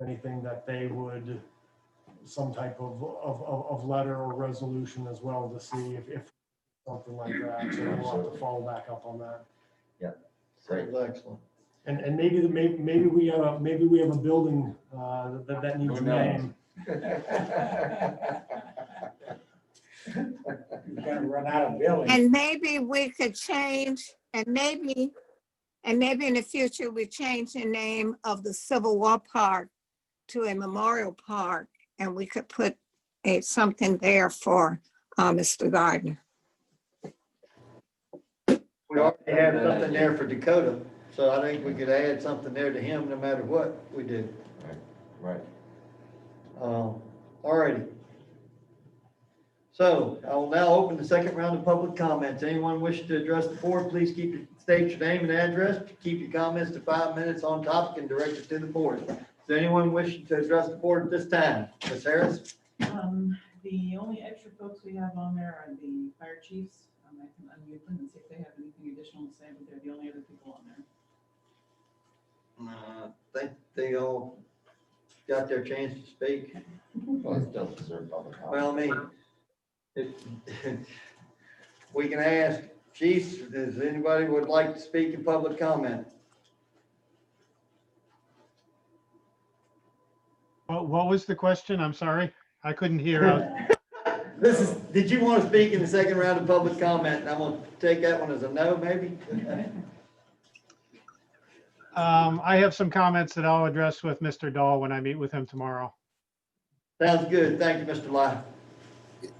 anything that they would, some type of, of, of, of letter or resolution as well to see if, if something like that. So we'll have to follow back up on that. Great. Excellent. And, and maybe, the- maybe, maybe we have, a maybe we have a building, uh, that, that needs a Who knows? name. You're gonna run out of buildings. And maybe we could change, and maybe, and maybe in the future, we change the name of the Civil War Park to a memorial park, and we could put a, something there for uh, Mr. Gardner. We already have something there for Dakota, so I think we could add something there to him no matter what we do. Right. Um, All righty. So I will now open the second round of public comments. Anyone wishing to address the board, please keep, your- state your name and address. Keep your comments to five minutes on topic and direct it to the board. Is anyone wishing to address the board at this time? Ms. Harris? Um, the only extra folks we have on there are the fire chiefs. Um, I can unmute them and see if they have anything additional to say, but they're the only other people on there. Uh, I think they all got their chance to speak. Well, it does deserve public comment. Well, I mean, it- we can ask chiefs, does anybody would like to speak in public comment? What, what was the question? I'm sorry. I couldn't hear. I was- This is, did you want to speak in the second round of public comment? And I'm going to take that one as a no, maybe? Um, I have some comments that I'll address with Mr. Dahl when I meet with him tomorrow. Sounds good. Thank you, Mr. Lai.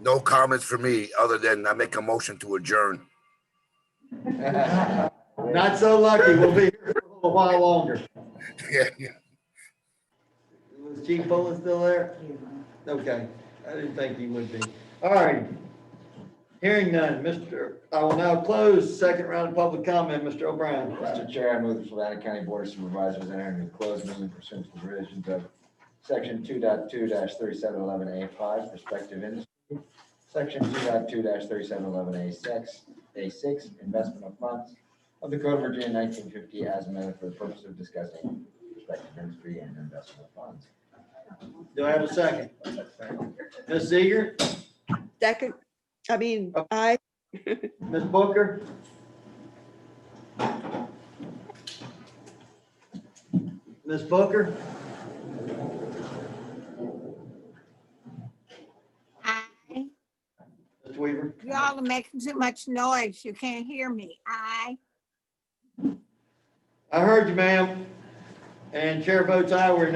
No comments for me, other than I make a motion to adjourn. Not so lucky. We'll be here for a little while longer. Yeah, yeah. Was Chief Bullen still there? Okay, I didn't think he would be. All right. Hearing none, Mr., I will now close the second round of public comment, Mr. O'Brien. Mr. Chair, I move the Savannah County Board of Supervisors enter into closed meeting pursuant to the provisions of section 22 thirty-seven eleven A five, prospective industry. Section 22 thirty-seven eleven A six, A six, investment of funds of the Code of Virginia nineteen fifty as amended for the purpose of discussing prospective industry and investment funds. Do I have a second? Ms. Seeger, Second, I mean, Oh. I, Ms. Booker? Ms. Booker? Aye. Mr. Weaver? Y'all are making too much noise. You can't hear me. Aye. I heard you, ma'am. And chair votes aye, we're